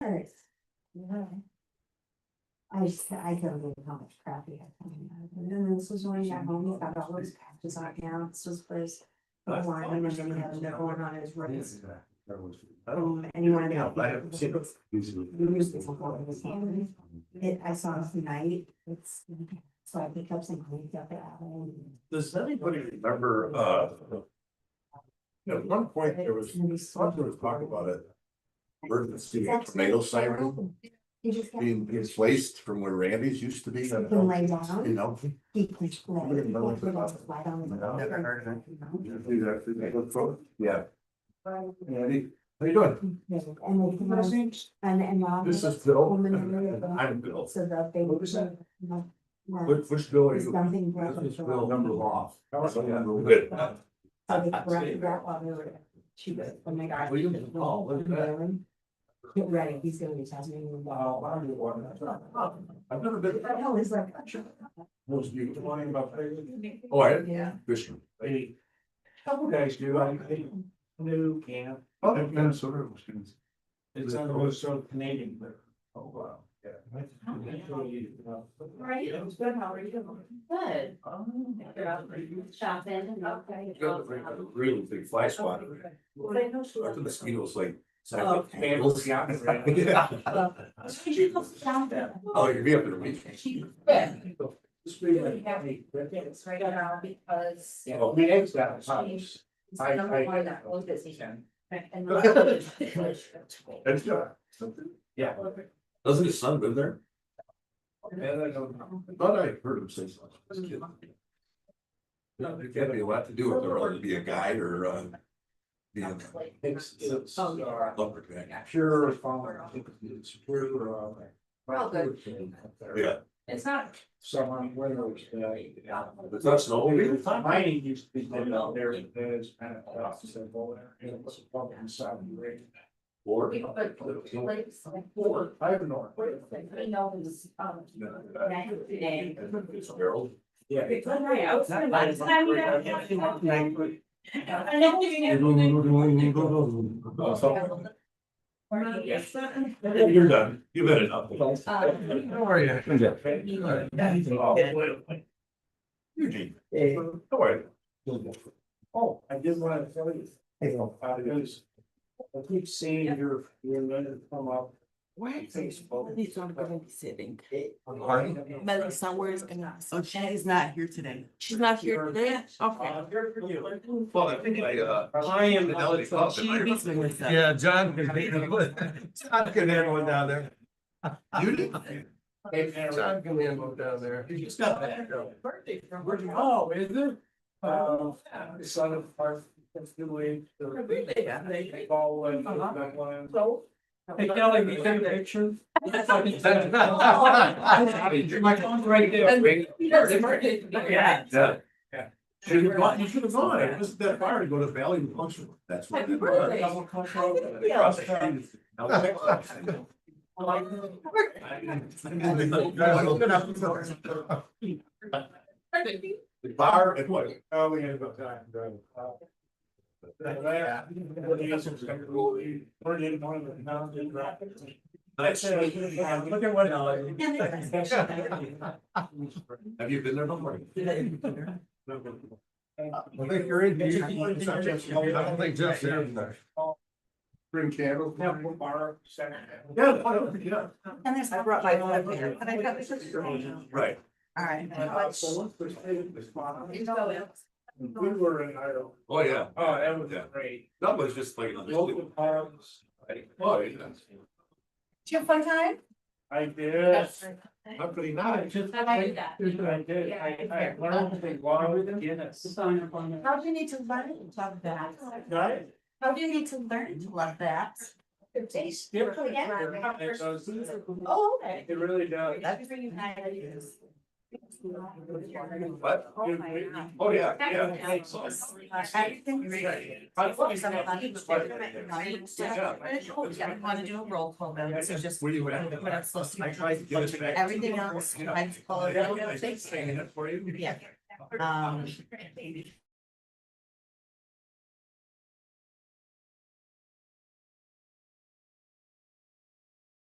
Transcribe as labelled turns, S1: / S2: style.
S1: No. I just, I don't know how much crap he had coming out of it, and then this was when he got home, he got all those patches on now, this was first. Line, and then he had another one on his wrist, um, and he wanted to.
S2: Yeah,
S1: help
S2: I haven't seen
S1: people. It, I saw it tonight, it's, so I picked up some cleaned up alley.
S2: Does anybody remember, uh? At one point, there was, thought there was talk about it. Emergency tornado siren
S1: He just. got-
S2: being displaced from where Randy's used to be.
S1: He can lay down.
S2: You know?
S1: He pushed
S2: I
S1: play.
S2: didn't know
S1: He
S2: what it was.
S1: put his light on.
S2: Never heard of
S1: it.
S2: Yeah. Andy, how you doing?
S1: And they came out, and, and now.
S2: This is Bill. and I'm Bill.
S1: So that they.
S2: What was that?
S1: No, no,
S2: Which, which Bill are
S1: there's
S2: you?
S1: nothing wrong
S2: This is
S1: with that.
S2: Bill. Number off.
S3: Oh, yeah.
S2: Good.
S1: So they corrected that while they were, she was, when they got.
S2: Well, you can call, what is that?
S1: Get ready, he's gonna be testing. you.
S2: Wow, I knew one. I've never been.
S1: What the hell is that?
S2: Most people talking about. Oh, I,
S1: Yeah.
S2: Fishman.
S3: Hey, Couple guys do, I think, new camp,
S2: Oh, Minnesota.
S3: it's on the west of Canadian, but.
S2: Oh, wow. Yeah.
S4: Right, it was good, how are you? Good. Shopping. Okay.
S2: You got the big- the Really big fly swatter.
S4: Well, I know she
S2: Or the
S4: was-
S2: mosquitoes like.
S3: Oh, okay.
S2: Yeah.
S4: She goes down there.
S2: Oh, you'd be up in a week.
S4: She.
S3: Yeah,
S4: It's right now because.
S3: well, we eggs got a house.
S4: It's
S3: I-
S4: number
S3: I-
S4: one that was busy. And-
S2: That's good.
S3: Yeah.
S2: Doesn't his son live there?
S3: And I go,
S2: I Thought I heard him say something. This kid. There can't be a lot to do with it, or be a guide or, uh. Be a.
S3: It's, it's,
S4: Oh, yeah.
S3: uh,
S2: lumberjack.
S3: pure farm, it's pure, uh.
S4: Oh, good.
S2: Yeah,
S4: It's not.
S3: Someone, whether it's, uh.
S2: it's not snowmobile.
S3: Mining used to be done out there, but there's kind of, uh, simple, and it was a problem inside the rig.
S2: Or.
S4: We put plates like
S3: Four, five and or.
S4: four, like, you know, it was, um, that day.
S2: Harold.
S3: Yeah.
S4: It's all right, I was gonna-
S3: Not
S4: I mean, I- I know you didn't-
S2: Oh,
S4: Yes.
S2: You're done, you've had enough.
S4: Um,
S2: How are you? Eugene. How are you?
S3: Oh, I did want to tell you. Uh, there's- I keep seeing your, your letter come up.
S5: Where is Melissa gonna be sitting?
S3: Melissa,
S5: where is gonna? Oh, she is not here today. uh, She's not here today? Okay.
S3: here for you.
S2: Well, I think I, uh,
S3: I am.
S2: Fidelity Club.
S5: She meets Melissa.
S6: Yeah, John can handle, John can handle it down there.
S2: You did?
S6: John can handle it down there.
S2: You just got that.
S4: Birthday from.
S3: Where'd you- Oh, is it? Uh, it's on the park, it's the way.
S4: Really?
S3: Ball and.
S4: Uh-huh.
S3: back line.
S4: So.
S3: Hey Kelly, you sent a picture? My phone's right there.
S4: Yeah.
S2: Yeah.
S3: Yeah.
S2: Should have gone, you should have gone, it wasn't that far to go to Valley and function, that's what.
S4: Happy
S2: it was.
S4: birthday.
S3: Double cut road.
S2: Across the street. Now, it's close. The bar and what?
S3: Oh, we had about time, bro.
S6: Yeah.
S3: We're in one of the mountain rapids.
S2: Nice.
S3: Look at what.
S2: Have you been there before?
S6: I think you're in. here. I don't think Jeff's in there.
S2: Bring candles.
S3: Temple bar.
S2: Yeah, why don't- yeah,
S5: And there's, I brought my one here, but I got this.
S2: right.
S5: All right.
S3: We were in Idaho.
S2: Oh, yeah.
S3: Oh, that was
S2: Yeah.
S3: great.
S2: That was just like. another
S3: Local
S2: sleep.
S3: parks.
S2: Oh, yeah.
S4: you have fun time?
S3: I did.
S2: How could he
S3: I
S2: not?
S3: just.
S4: How about you that?
S3: Here's what I did. I, I learned to walk Guinness.
S4: How do you need to learn to love that?
S3: Right?
S4: How do you need to learn to love that?
S3: It's different. It does.
S4: Oh, okay.
S3: It really does.
S2: What?
S5: Oh, my God.
S2: Oh, yeah, yeah.
S5: Yeah, I want to do a roll call then, so just.
S2: Where you
S5: What
S2: at?
S5: I'm supposed to
S2: I
S5: do.
S2: tried to give it back.
S5: Everything else, I follow.
S2: Yeah, I just saying that for you.
S5: Yeah. Um,